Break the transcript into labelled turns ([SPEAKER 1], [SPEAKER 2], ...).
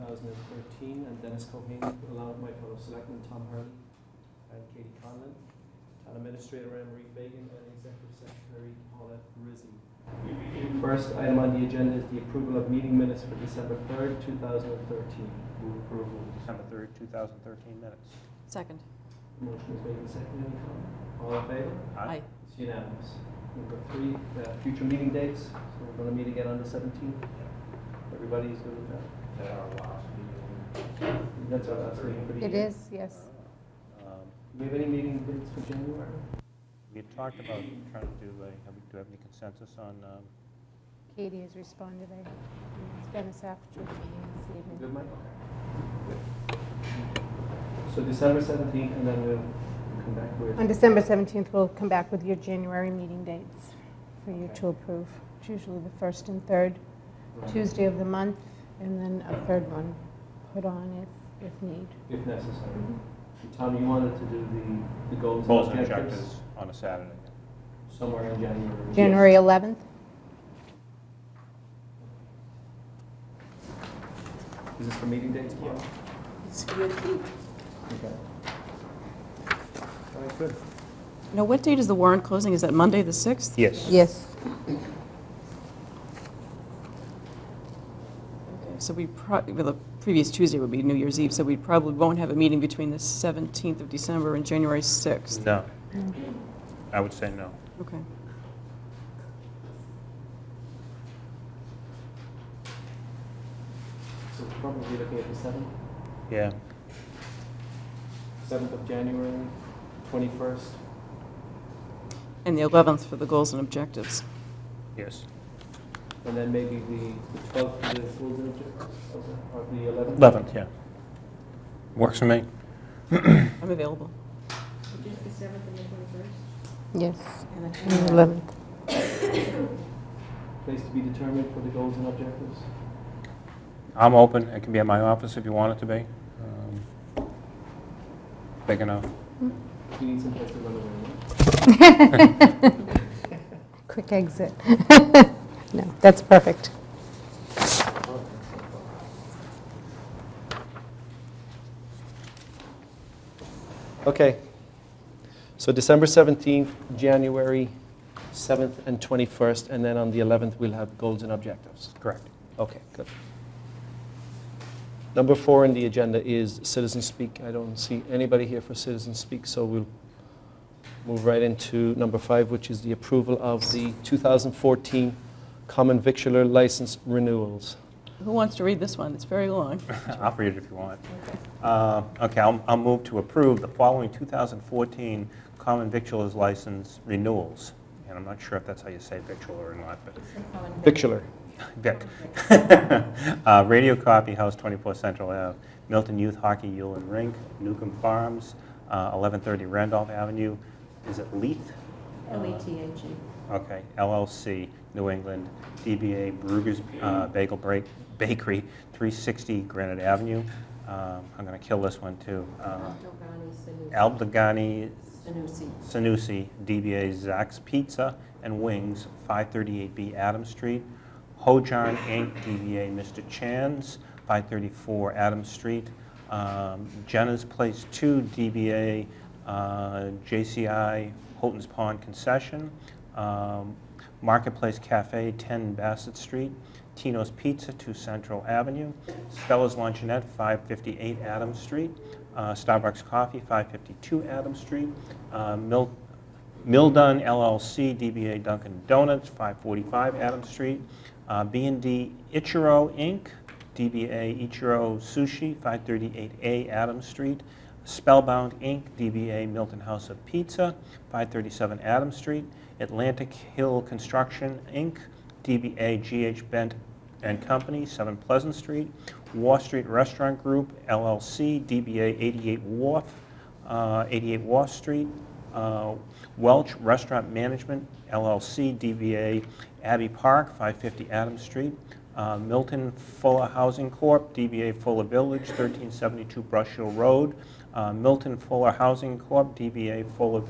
[SPEAKER 1] uh, Sheen and Dennis Cohane, along with my fellow selectmen, Tom Harley and Katie Conlon, Town Administrator Anne Marie Fagan, and Executive Secretary Paula Rizzi. First item on the agenda is the approval of meeting minutes for December 3rd, 2013.
[SPEAKER 2] Move approval of December 3rd, 2013 minutes.
[SPEAKER 3] Second.
[SPEAKER 1] Motion is made and seconded. Any comment? All in favor?
[SPEAKER 3] Aye.
[SPEAKER 1] It's unanimous. Number three, uh, future meeting dates. So we're going to meet again on the 17th. Everybody's good with that?
[SPEAKER 2] That our last meeting.
[SPEAKER 1] That's our last meeting for the year.
[SPEAKER 4] It is, yes.
[SPEAKER 2] Um,
[SPEAKER 1] Do we have any meeting dates for January?
[SPEAKER 4] Mm-hmm.
[SPEAKER 2] We had talked about trying to do, a- have we- do we have any consensus on, um,
[SPEAKER 4] Katie has responded. I- It's been a after meeting this
[SPEAKER 1] You
[SPEAKER 4] evening.
[SPEAKER 1] Good, Mike? So December 17th, and then we'll come back with...
[SPEAKER 4] On December 17th, we'll come back with your January meeting dates for you
[SPEAKER 1] Okay.
[SPEAKER 4] to approve. It's usually the first and third
[SPEAKER 1] uh,
[SPEAKER 4] Tuesday of the month, and then a third one put on if, if need.
[SPEAKER 1] If necessary.
[SPEAKER 4] Mm-hmm.
[SPEAKER 1] And Tom, you wanted to do the, the goals
[SPEAKER 2] goals
[SPEAKER 1] and
[SPEAKER 2] and
[SPEAKER 1] objectives
[SPEAKER 2] objectives on a Saturday?
[SPEAKER 1] somewhere in January.
[SPEAKER 4] January 11th?
[SPEAKER 1] Is this for meeting dates, Paul?
[SPEAKER 3] It's good.
[SPEAKER 1] Okay. All right, good.
[SPEAKER 3] Now, what date is the warrant closing? Is that Monday, the 6th?
[SPEAKER 2] Yes.
[SPEAKER 4] Yes.
[SPEAKER 3] Okay, So we, pro- well, the previous Tuesday would be New Year's Eve, so we probably won't have a meeting between the 17th of December and January 6th.
[SPEAKER 2] No. I would say no.
[SPEAKER 3] Okay.
[SPEAKER 1] So we're probably looking at the 7th,
[SPEAKER 2] Yeah.
[SPEAKER 1] 7th of January, 21st.
[SPEAKER 3] And the 11th for the goals and objectives.
[SPEAKER 2] Yes.
[SPEAKER 1] And then maybe the the 12th, for the goals and objectives, or the 11th?
[SPEAKER 2] 11th, yeah. Works for me.
[SPEAKER 3] I'm available.
[SPEAKER 5] Just the seventh and the twenty-first?
[SPEAKER 4] Yes.
[SPEAKER 5] And the
[SPEAKER 4] And the 11th.
[SPEAKER 1] Place to be determined for the goals and objectives.
[SPEAKER 2] I'm open. It can be at my office if you want it to be. Um, Big enough.
[SPEAKER 1] We need some place to run away, right?
[SPEAKER 4] Quick exit. No, that's perfect.
[SPEAKER 1] Okay. So December 17th, January 7th and 21st, and then on the 11th, we'll have goals and objectives.
[SPEAKER 2] Correct.
[SPEAKER 1] Okay, good. Number four on the agenda is citizen speak. I don't see anybody here for citizen speak, so we'll move right into number five, which is the approval of the 2014 common victular license renewals.
[SPEAKER 3] Who wants to read this one? It's very long.
[SPEAKER 2] I'll read it if you want. Uh, Okay, I'll I'll move to approve the following 2014 common victuals license renewals. And I'm not sure if that's how you say victual or not, but
[SPEAKER 5] E
[SPEAKER 1] Victular.
[SPEAKER 2] Vic. Uh, Radio Coffee House, 24 Central Ave, Milton Youth Hockey Yule and Rink, Newcomb Farms, uh, 1130 Randolph Avenue, is it Leith?
[SPEAKER 5] L E T H E.
[SPEAKER 2] Okay, LLC, New England, DBA Brugger's uh, Bagel Break- Bakery, 360 Granite Avenue. Um, I'm going to kill this one, too. Uh,
[SPEAKER 5] Aldogani
[SPEAKER 2] Aldegani
[SPEAKER 5] Sanusi. Sanusi.
[SPEAKER 2] Sanusi, DBA Zack's Pizza and Wings, 538B Adams Street. Hojarn Inc., DBA Mr. Chan's, 534 Adams Street. Um, Jenna's Place 2, DBA uh, JCI Holton's Pond Concession. Um, Marketplace Cafe, 10 Bassett Street. Tino's Pizza, 2 Central Avenue. Stella's Luncheonette, 558 Adams Street. Uh, Starbucks Coffee, 552 Adams Street. Uh, Mil- Mildon LLC, DBA Dunkin' Donuts, 545 Adams Street. Uh, b and d Ichiro Inc., DBA Ichiro Sushi, 538A Adams Street. Spellbound Inc., DBA Milton House of Pizza, 537 Adams Street. Atlantic Hill Construction Inc., DBA GH Bent and Company, 7 Pleasant Street. Wall Street Restaurant Group LLC, DBA 88 Wharf, uh, 88 Wall Street, uh, Welch Restaurant Management LLC, DBA Abbey Park, 550 Adams Street, uh, Milton Fuller Housing Corp., DBA Fuller Village, 1372 Brush Hill Road, uh, Milton Fuller Housing Corp., DBA Fuller